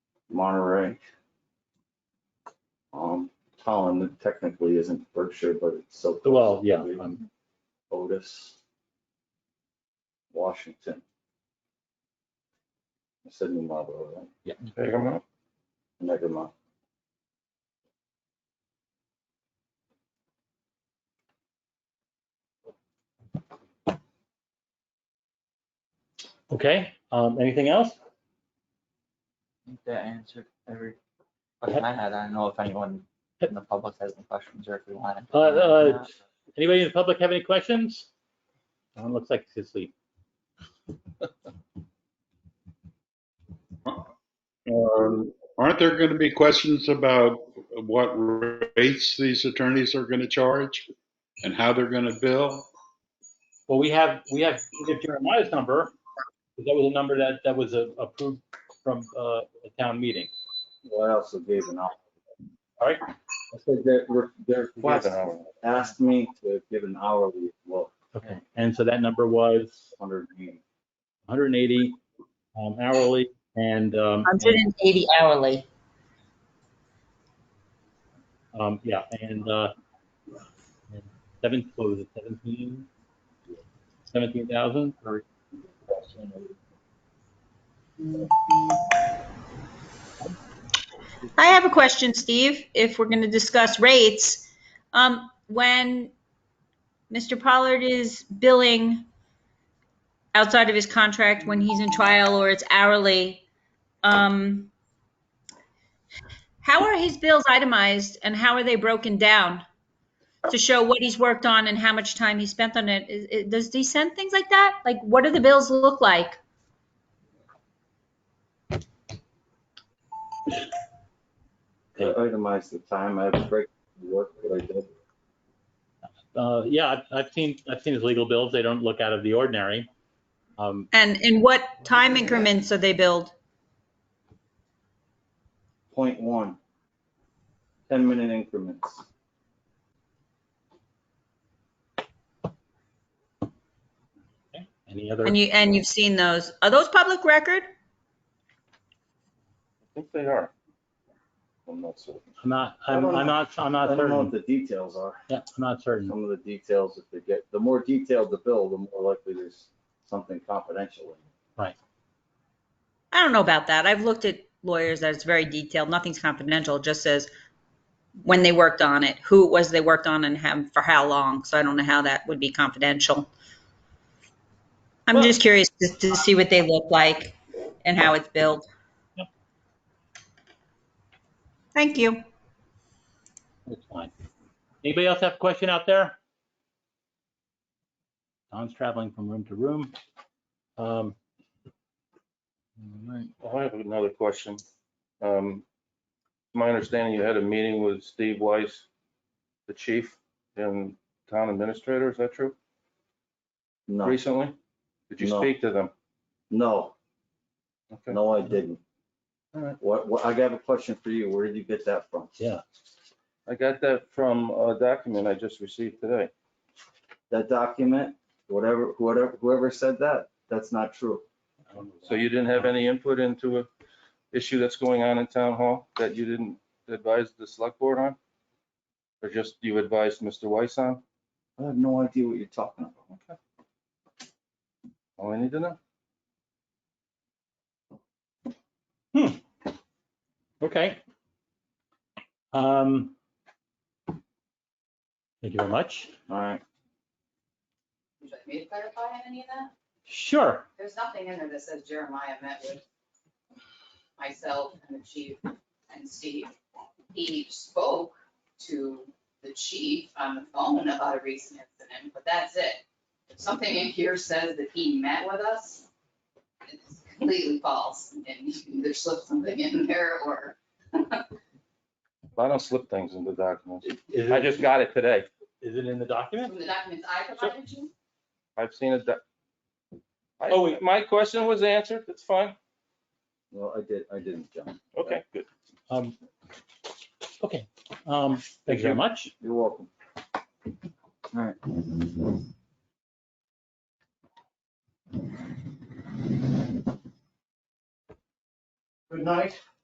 Monterey. Um, Holland technically isn't Berkshire, but it's so. close. Well, yeah, um, I'm- Otis. Washington. I said New Marlboro, right? Take them up. Never mind. okay, um, anything else? think that answered every question I had. I don't know if anyone in the public has any questions or if we want. to- Uh, uh, Anybody in the public have any questions? Uh, looks like he's asleep. Um, Aren't there going to be questions about what rates these attorneys are going to charge and how they're going to bill? Well, we have, we have we have Jeremiah's number. That was a number that, that was uh, approved from, uh, a town meeting. Well, I also gave an hour. All right. I said that re- their request hour. asked me to give an hourly, well, Okay, and so that number was hundred and 180 um, hourly and, um, Hundred and eighty hourly. um, yeah, and, uh, and seven, what was it, 17? 17,000? or- I have a question, Steve, if we're going to discuss rates. Um, when Mr. Pollard is billing outside of his contract, when he's in trial or it's hourly, um, how are his bills itemized and how are they broken down to show what he's worked on and how much time he spent on it? Is- is- Does he send things like that? Like, what do the bills look like? I itemized the time I break work, what I did. Uh, yeah, I've, I've seen, I've seen his legal bills. They don't look out of the ordinary. Um, And in what time increments are they billed? Point one. Ten minute increments. any other? And you, and you've seen those. Are those public record? I think they are. I'm not certain. I'm not, I I'm, don't I'm know. not, I'm I not don't know what certain. the details are. Yeah, I'm not certain. Some of the details, if they get, the more detailed the bill, the more likely there's something confidential. in it. I don't know about that. I've looked at lawyers that it's very detailed. Nothing's confidential. It just says when they worked on it, who it was they worked on and how, for how long. So I don't know how that would be confidential. I'm Well- just curious to, to see what they look like and how it's built. Yep. Thank you. It's fine. Anybody else have a question out there? Don's traveling from room to room. Um, all right. I have another question. Um, My understanding, you had a meeting with Steve Weiss, the chief and town administrator, is that true? No, Recently? Did you No. speak to them? no, Okay. no, I didn't. All right. What, what, I got a question for you. Where did you get that from? I got that from a document I just received today. That document, whatever, whatever, whoever said that, that's not true. So you didn't have any input into a issue that's going on in town hall that you didn't advise the select board on? Or just you advised Mr. Weiss on? I have no idea what you're talking about. Okay. All I need to know. Okay. Um, thank you very much. All right, Would you like me to clarify on any of that? Sure. There's nothing in there that says Jeremiah met with myself and the chief and Steve. He spoke to the chief on the phone about a recent incident, but that's it. If something in here says that he met with us, it's completely false, and you can either slip something in there or. I don't slip things into documents. Is I just got it today. Is it in the document? From the documents I provided you, I've seen it. that- I- Oh, wait. My question was answered. That's fine. well, I did, I didn't, John. Okay, good. Um, okay. Um, thank you very much. You're welcome. All right. Good night.